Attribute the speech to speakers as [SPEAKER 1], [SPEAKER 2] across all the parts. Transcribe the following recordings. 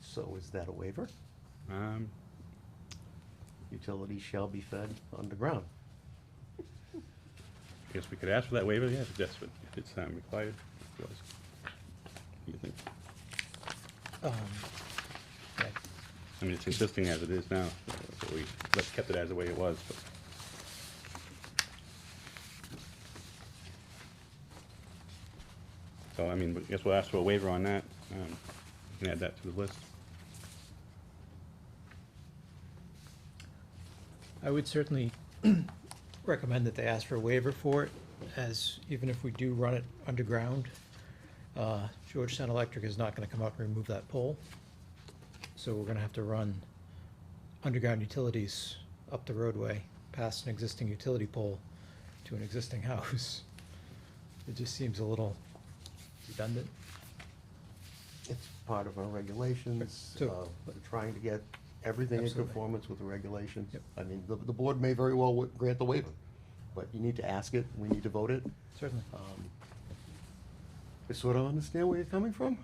[SPEAKER 1] So is that a waiver?
[SPEAKER 2] Um,
[SPEAKER 1] Utilities shall be fed underground.
[SPEAKER 2] I guess we could ask for that waiver, yeah, if that's what, if it's um, required. What else do You think?
[SPEAKER 3] Um, okay.
[SPEAKER 2] I mean, it's existing as it is now, but we, but kept it as the way it was, but. So, I mean, I guess we'll ask for a waiver on that, um, you can add that to the list.
[SPEAKER 3] I would certainly recommend that they ask for a waiver for it, as even if we do run it underground, uh, Georgetown Electric is not gonna come out and remove that pole. So we're gonna have to run underground utilities up the roadway, past an existing utility pole to an existing house. It just seems a little redundant.
[SPEAKER 1] It's part of our regulations.
[SPEAKER 3] Right, so-
[SPEAKER 1] uh, We're trying to get everything in
[SPEAKER 3] Absolutely.
[SPEAKER 1] conformance with the regulations.
[SPEAKER 3] Yep.
[SPEAKER 1] I mean, the, the board may very well wa- grant the waiver, but you need to ask it, we need to vote it.
[SPEAKER 3] Certainly.
[SPEAKER 1] Um, I sort of understand where you're coming from,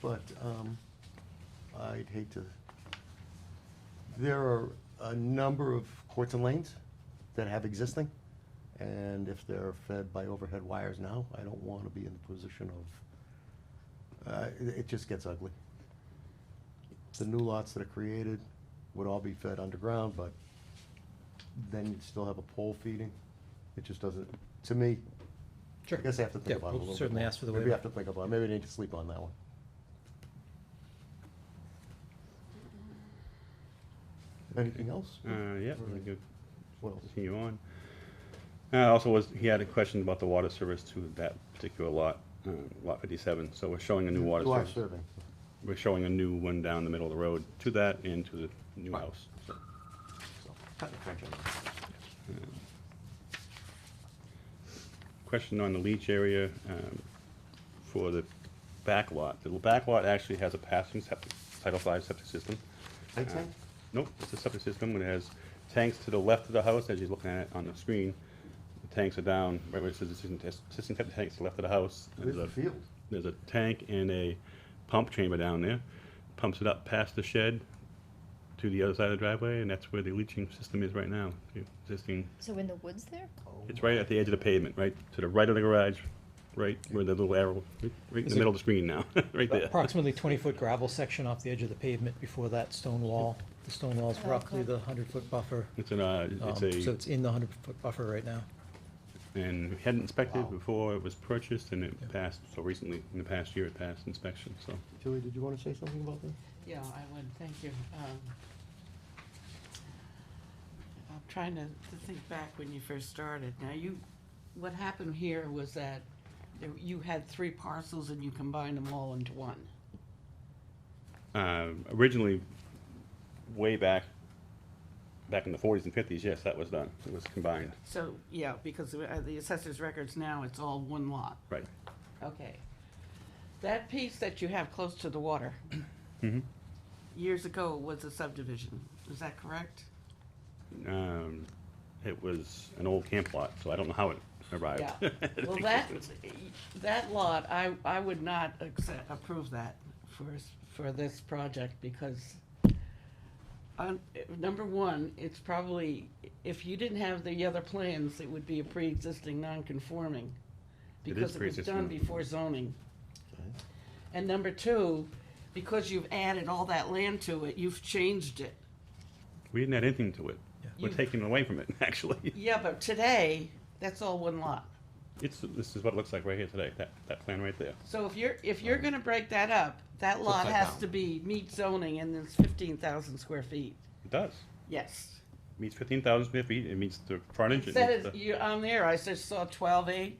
[SPEAKER 1] but um, I'd hate to. There are a number of courts and lanes that have existing, and if they're fed by overhead wires now, I don't want to be in the position of, uh, it it just gets ugly. The new lots that are created would all be fed underground, but then you'd still have a pole feeding. It just doesn't, to me, I
[SPEAKER 3] Sure.
[SPEAKER 1] guess I have to
[SPEAKER 3] Yeah,
[SPEAKER 1] think about it a
[SPEAKER 3] we'll
[SPEAKER 1] little bit
[SPEAKER 3] certainly
[SPEAKER 1] more.
[SPEAKER 3] ask for the
[SPEAKER 1] Maybe I have
[SPEAKER 3] waiver.
[SPEAKER 1] to think about it, maybe I need to sleep on that one. Anything else?
[SPEAKER 2] Uh, yeah, we
[SPEAKER 1] Right.
[SPEAKER 2] could
[SPEAKER 1] What else?
[SPEAKER 2] continue on. Uh, also was, he had a question about the water service to that particular lot, uh, lot fifty-seven, so we're showing a new water
[SPEAKER 1] To our
[SPEAKER 2] service.
[SPEAKER 1] survey.
[SPEAKER 2] We're showing a new one down the middle of the road to that and to the new house, so.
[SPEAKER 1] so, cut the crunch on it.
[SPEAKER 2] Question on the leach area um, for the back lot. The back lot actually has a passing septic, Title V septic system.
[SPEAKER 1] Make
[SPEAKER 2] Uh,
[SPEAKER 1] sense?
[SPEAKER 2] Nope, it's a septic system, and it has tanks to the left of the house, as you're looking at it on the screen. The tanks are down, right where it says existing test- existing septic tanks, to the left of the house. and
[SPEAKER 1] Where's the
[SPEAKER 2] there's a-
[SPEAKER 1] field?
[SPEAKER 2] There's a tank and a pump chamber down there. Pumps it up past the shed to the other side of the driveway, and that's where the leaching system is right now, the existing
[SPEAKER 4] So in the woods there?
[SPEAKER 2] it's right at the edge of the pavement, right to the right of the garage, right where the little arrow, right right in
[SPEAKER 3] Is
[SPEAKER 2] the
[SPEAKER 3] it-
[SPEAKER 2] middle of the screen now, right there.
[SPEAKER 3] Approximately twenty-foot gravel section off the edge of the pavement before that stone wall. The stone wall is
[SPEAKER 4] Oh,
[SPEAKER 3] roughly
[SPEAKER 4] okay.
[SPEAKER 3] the hundred-foot buffer.
[SPEAKER 2] It's an, uh,
[SPEAKER 3] Um,
[SPEAKER 2] it's
[SPEAKER 3] So
[SPEAKER 2] a,
[SPEAKER 3] it's in the hundred-foot buffer right now.
[SPEAKER 2] and we hadn't inspected
[SPEAKER 1] Wow.
[SPEAKER 2] before it was purchased and
[SPEAKER 3] Yeah.
[SPEAKER 2] it passed, so recently, in the past year, it passed inspection, so.
[SPEAKER 1] Tilly, Oh, did you want to say something about this?
[SPEAKER 5] Yeah, I would, thank you. Um, I'm trying to to think back when you first started. Now, you, what happened here was that there- you had three parcels and you combined them all into one.
[SPEAKER 2] Uh, originally, way back, back in the forties and fifties, yes, that was done, it was combined,
[SPEAKER 5] So, yeah, because uh, the assessor's records now, it's all one lot.
[SPEAKER 2] right.
[SPEAKER 5] Okay. That piece that you have close to the water
[SPEAKER 2] Mhm.
[SPEAKER 5] years ago was a subdivision, is that correct?
[SPEAKER 2] Um, it was an old camp lot, so I don't know how it arrived.
[SPEAKER 5] Yeah,
[SPEAKER 2] at
[SPEAKER 5] well, that,
[SPEAKER 2] existence.
[SPEAKER 5] that lot, I, I would not accept, approve that for, s- for this project because on, number one, it's probably, if you didn't have the other plans, it would be a pre-existing non-conforming.
[SPEAKER 2] It is
[SPEAKER 5] Because it was done
[SPEAKER 2] pre-existing.
[SPEAKER 5] before zoning.
[SPEAKER 1] Okay.
[SPEAKER 5] And number two, because you've added all that land to it, you've changed it.
[SPEAKER 2] We didn't add anything to it.
[SPEAKER 3] Yeah.
[SPEAKER 2] We're
[SPEAKER 5] You-
[SPEAKER 2] taking it away from it, actually.
[SPEAKER 5] Yeah, but today, that's all one lot.
[SPEAKER 2] It's, this is what it looks like right here today, that, that plan right there.
[SPEAKER 5] So if you're, if you're gonna break that up, that lot
[SPEAKER 1] upside
[SPEAKER 5] has
[SPEAKER 1] down.
[SPEAKER 5] to be meet zoning and it's fifteen thousand square feet.
[SPEAKER 2] It does.
[SPEAKER 5] Yes.
[SPEAKER 2] Meets fifteen thousand square feet, it meets the frontage. it
[SPEAKER 5] That
[SPEAKER 2] meets
[SPEAKER 5] is,
[SPEAKER 2] the-
[SPEAKER 5] you, on there, I said saw twelve eight,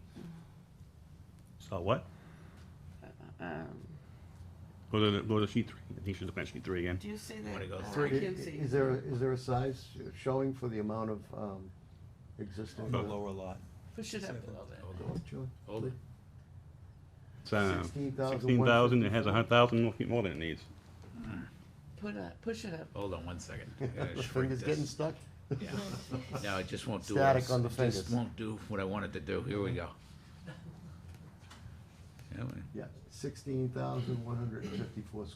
[SPEAKER 2] Saw what?
[SPEAKER 5] um,
[SPEAKER 2] Go to, the- go to sheet three, I think she's looking at sheet three again.
[SPEAKER 5] do you see that?
[SPEAKER 6] Wanna go
[SPEAKER 5] Uh, I
[SPEAKER 1] I-
[SPEAKER 6] three?
[SPEAKER 5] can't see.
[SPEAKER 1] Is there, a- is there a size showing for the amount of um, existing?
[SPEAKER 6] The lower lot.
[SPEAKER 5] Push it up a little bit.
[SPEAKER 6] Older.
[SPEAKER 2] It's, uh,
[SPEAKER 1] 16,100.
[SPEAKER 2] sixteen thousand, it has a hundred thousand more feet more than it needs.
[SPEAKER 5] Put a, push it up.
[SPEAKER 6] Hold on one second. I gotta
[SPEAKER 1] The
[SPEAKER 6] shrink
[SPEAKER 1] finger's getting
[SPEAKER 6] this.
[SPEAKER 1] stuck?
[SPEAKER 6] Yeah. No, it just won't do. what I
[SPEAKER 1] Static
[SPEAKER 6] s-
[SPEAKER 1] on the
[SPEAKER 6] it
[SPEAKER 1] fingers.
[SPEAKER 6] Just won't do what I wanted to do. Here we go. Yeah, we-
[SPEAKER 1] Yeah, sixteen thousand one hundred and fifty-four